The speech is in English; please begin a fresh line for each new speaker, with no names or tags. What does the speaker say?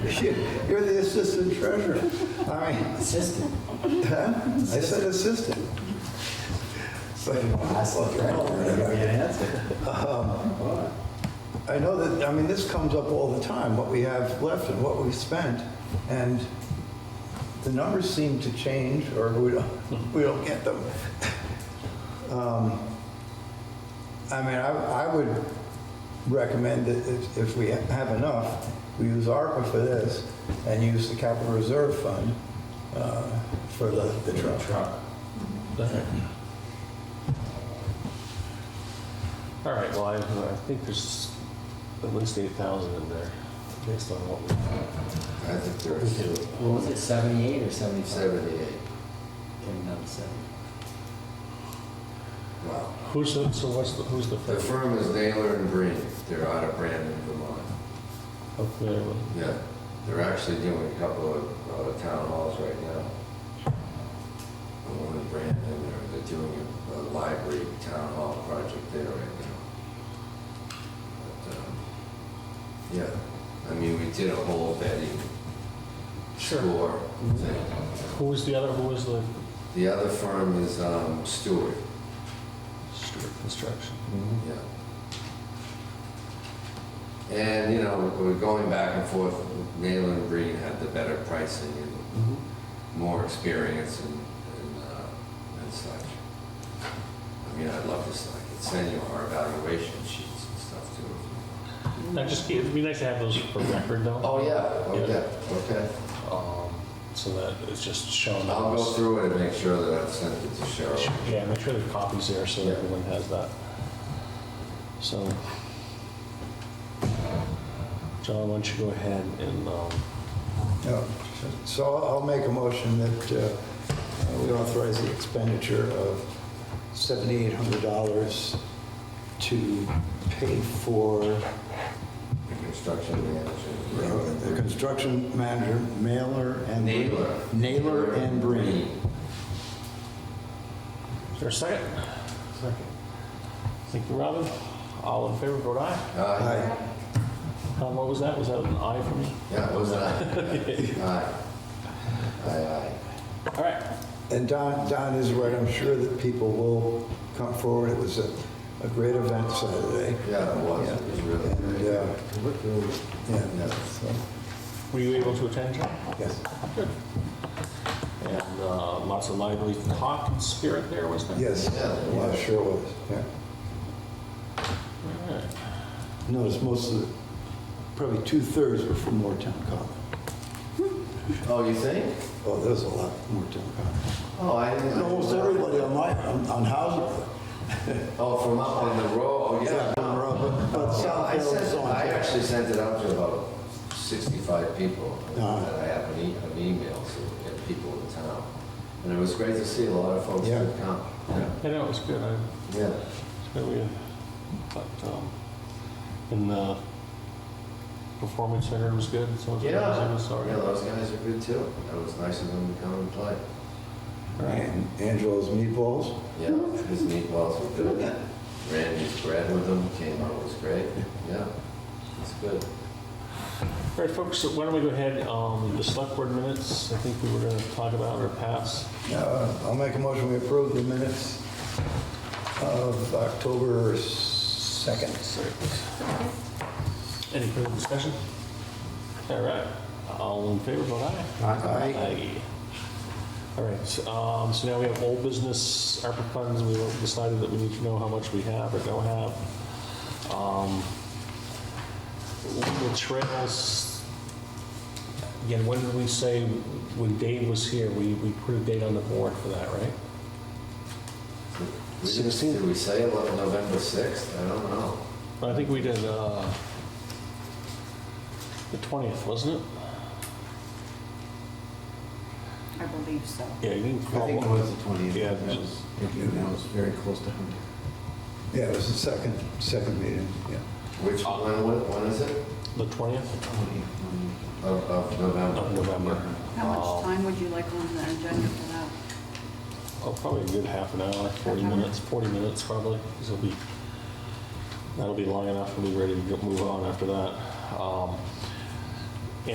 shit, you're the assistant treasurer. I mean,
Assistant.
huh? I said assistant. But
Assistant director. Yeah, that's it.
I know that, I mean, this comes up all the time, what we have left and what we've spent. And the numbers seem to change or we don't, we don't get them. Um, I mean, I, I would recommend that if, if we have enough, we use ARPA for this and use the capital reserve fund, uh, for the, the truck.
All right, well, I, I think there's at least eight thousand in there, based on what we,
I think there's
What was it, 78 or 75?
78.
Came down to 70.
Wow.
who's, the- so what's the, who's the
The
firm?
firm is Naylor and Green. They're out of Brandon, Vermont.
up there with?
Yeah. They're actually doing a couple of uh, town halls right now. The one in Brandon, they're, they're doing a- a library town hall project there right now. But, um, Yeah, I mean, we did a whole vetting score thing.
Who was the other, who was the
The other firm is um, Stewart.
Stewart Construction?
Mm-hmm. Yeah. And, you know, we're going back and forth, Naylor and Breen had the better pricing and
Mm-hmm.
more experience and, and, uh, and such. I mean, I'd love to, s- I could send you our evaluation sheets and stuff too.
I just, it'd be nice to have those for record though.
Oh, yeah, okay, okay.
Um, so that it's just shown.
I'll go
us.
through it and make sure that I've sent it to Cheryl.
Yeah, make sure the copy's there so
Yeah.
everyone has that. So, John, why don't you go ahead and, um,
No. So I'll I'll make a motion that uh, we authorize the expenditure of $7,800 to pay for uh,
The construction manager.
the construction manager, Mailer and...
Naylor.
Naylor and Breen.
is there a second? Thank you, Robin. All in favor, vote aye.
Uh,
Aye.
Um, what was that? Was that an eye from you?
yeah, was that? Aye. Aye, aye.
All right.
And Don, Don is right, I'm sure that people will come forward. It was a a great event Saturday.
Yeah, it was, it was really
And,
great.
uh, yeah,
Yeah.
so,
Were you able to attend, John?
yes.
And uh, lots of lively talk and spirit there, wasn't there?
Yes,
Yeah.
yeah, sure was, yeah.
All right.
Notice most of the, probably two-thirds were from Moretown Common.
Oh, you think?
Oh, there's a lot from Moretown Common.
Oh, I didn't.
And Almost everybody on my, on on housing,
Oh, from up on the road, oh, yeah.
yeah, on Rob, but- but
Yeah,
South
I
Hill is
sent,
on.
I actually sent it out to about 65 people
Uh-huh.
that I have an e- an email to, and people in town. And it was great to see a lot of folks
Yeah.
who come. Yeah.
Yeah, no, it was good. I, it's
Yeah.
good we, but, um, and the performance center was good. So was
Yeah,
was all right.
those guys are good too. That was nice of them to come and play.
And Angelo's Meatballs,
Yeah, his meatballs were good. Randy's bread with them came out, was great. Yeah, it's good.
All right, folks, so why don't we go ahead, um, the select board minutes, I think we were going to talk about or pass.
Uh, I'll make a motion, we approve the minutes of October 2nd.
Any further discussion? All right, all in favor, vote aye.
Aye.
Aye. All right, so, um, so now we have old business ARPA funds, we decided that we need to know how much we have or don't have. Um, The trails, again, when did we say, when Dave was here, we, we put a date on the board for that, right?
We didn't-
16th?
Did we say it was November 6th? I don't know.
I think we did, uh, the 20th, wasn't it?
I believe so.
Yeah, you didn't.
I think it was the 20th.
Yeah,
That was, that was very close to 100.
Yeah, it was the second, second meeting, yeah.
Which, when, when- when is it?
The 20th
20th,
Of, of November?
of November.
How
Oh.
much time would you like on the agenda for that?
Oh, probably a good half an hour, 40
Okay.
minutes, 40 minutes probably, 'cause it'll be, that'll be long enough, we'll be ready to go- move on after that. Um,